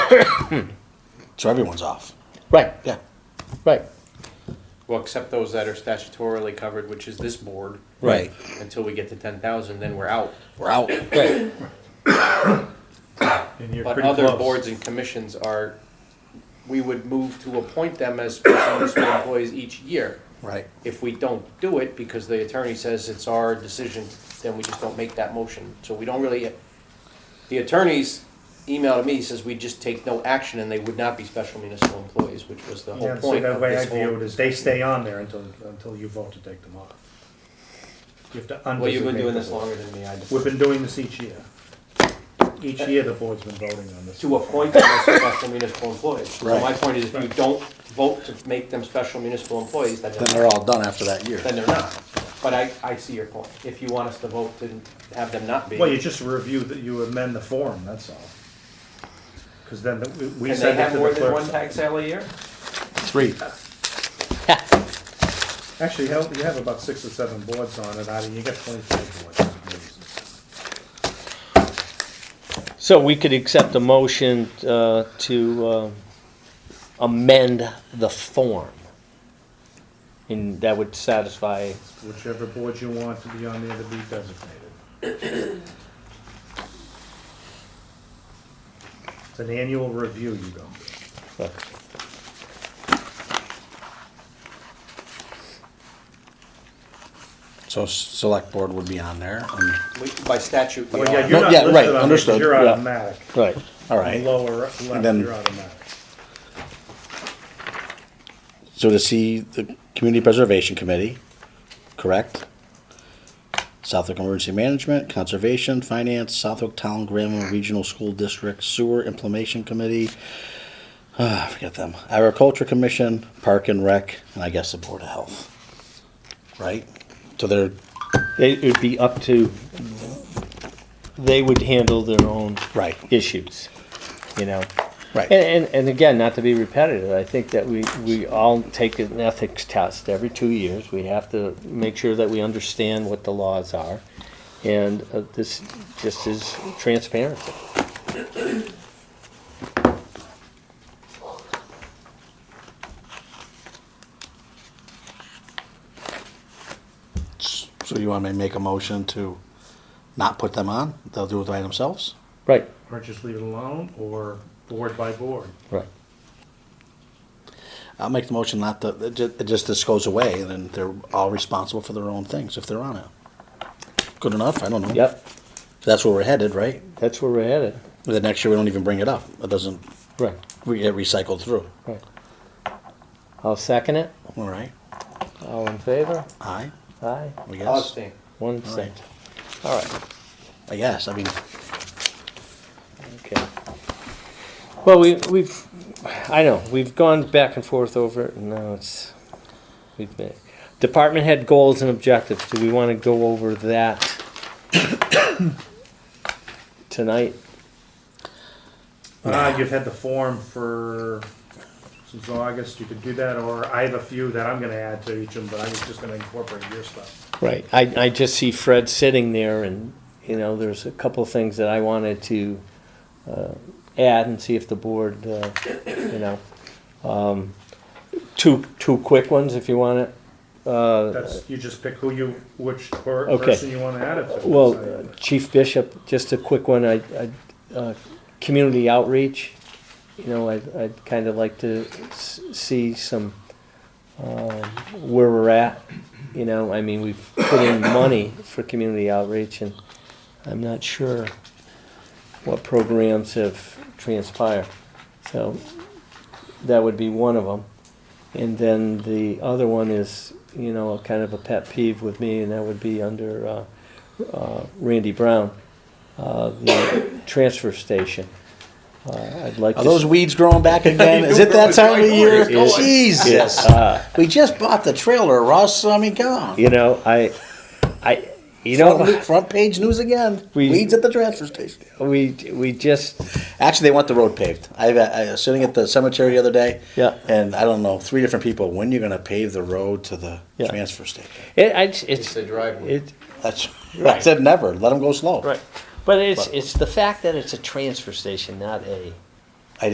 So everyone's off. Right, Yeah. right. Well, except those that are statutorily covered, which is this board, Right. until we get to ten thousand, then we're out. We're out. Right. And you're But pretty other close. boards and commissions are, we would move to appoint them as special municipal employees each year. Right. If we don't do it, because the attorney says it's our decision, then we just don't make that motion. So we don't really, the attorney's email to me says we just take no action and they would not be special municipal employees, which was the whole Yeah, so point that of way I this view it whole. is they stay on there until, until you vote to take them off. You have to undesignate. Well, you've been doing the this board. longer than me, I just. We've been doing this each year. Each year, the board's been voting on this. to appoint them as special municipal employees. So my Right. point is, if you don't vote to make them special municipal employees, then Then they're, they're all done after that year. then they're not. But I, I see your point. If you want us to vote to have them not be, Well, you just review that, you amend the form, that's all. Because then the- we- we can they send it have to more the than one clerk. tag sale a year? Three. Actually, you have you have about six or seven boards on it, out of, you got twenty-five boards. So we could accept a motion uh, to uh, amend the form. And that would satisfy, Whichever board you want to be on there to be designated. It's an annual review you go. So s- select board would be on there. Um, and- We- By statute, we Well, yeah, are. you're No, not yeah, listed right, on there 'cause understood, You're yeah. automatic. right, all right. Lower left, then- you're automatic. So to see the Community Preservation Committee, correct? Southwick Emergency Management, Conservation, Finance, Southwick Town, Grandma Regional School District, Sewer Implementation Committee. Ah, forget them. Agriculture Commission, Park and Rec, and I guess the Board of Health. Right? So they're, it would be up to, they would handle their own right, issues, you know? right. And, and, and again, not to be repetitive, I think that we, we all take an ethics test every two years. We have to make sure that we understand what the laws are. And uh, this just is transparency. So you want me to make a motion to not put them on? They'll do it by themselves? Right, Or just leave it alone, or board by board. right. I'll make the motion not to, it ju- it just, this goes away, and then they're all responsible for their own things if they're on it. Good enough, I don't know. Yep, That's where we're headed, right? that's where we're headed. The next year, we don't even bring it up. It doesn't Right, re- get recycled through, right. I'll second it. all right? All in favor? Aye, Aye. I I'll guess. abstain. One All right. abstain. All right, I guess, I mean, okay. Well, we, we've, I know, we've gone back and forth over it, and now it's, we've been. Department head goals and objectives, do we want to go over that tonight? Uh, you've had the form for, since August, you could do that, or I have a few that I'm gonna add to each of them, but I was just gonna incorporate your stuff. Right, I, I just see Fred sitting there and, you know, there's a couple of things that I wanted to uh, add and see if the board, uh, you know. um, Two, two quick ones if you want it. Uh, That's, you just pick who you, which per- Okay. person you wanna add it to. Well, Chief Bishop, just a quick one, I, I, uh, community outreach. You know, I, I'd kind of like to s- see some, um, where we're at. You know, I mean, we've put in money for community outreach and I'm not sure what programs have transpired. So that would be one of them. And then the other one is, you know, kind of a pet peeve with me, and that would be under uh, uh, Randy Brown, uh, the transfer station. Uh, I'd like are to. those weeds growing back again? Is it that time of year? Jesus, we just bought the trailer, Russ, I mean, come on. you know, I, I, you Front know, lo- Front page news again, We- weeds at the transfer station. we we just Actually, they want the road paved. I, I was sitting at the cemetery the other day. Yeah. And I don't know, three different people, when you're gonna pave the road to the Yeah. transfer station? it, I, it's It's the driveway. It, That's, I said never, let them go slow. Right. But it's, it's the fact that it's a transfer station, not a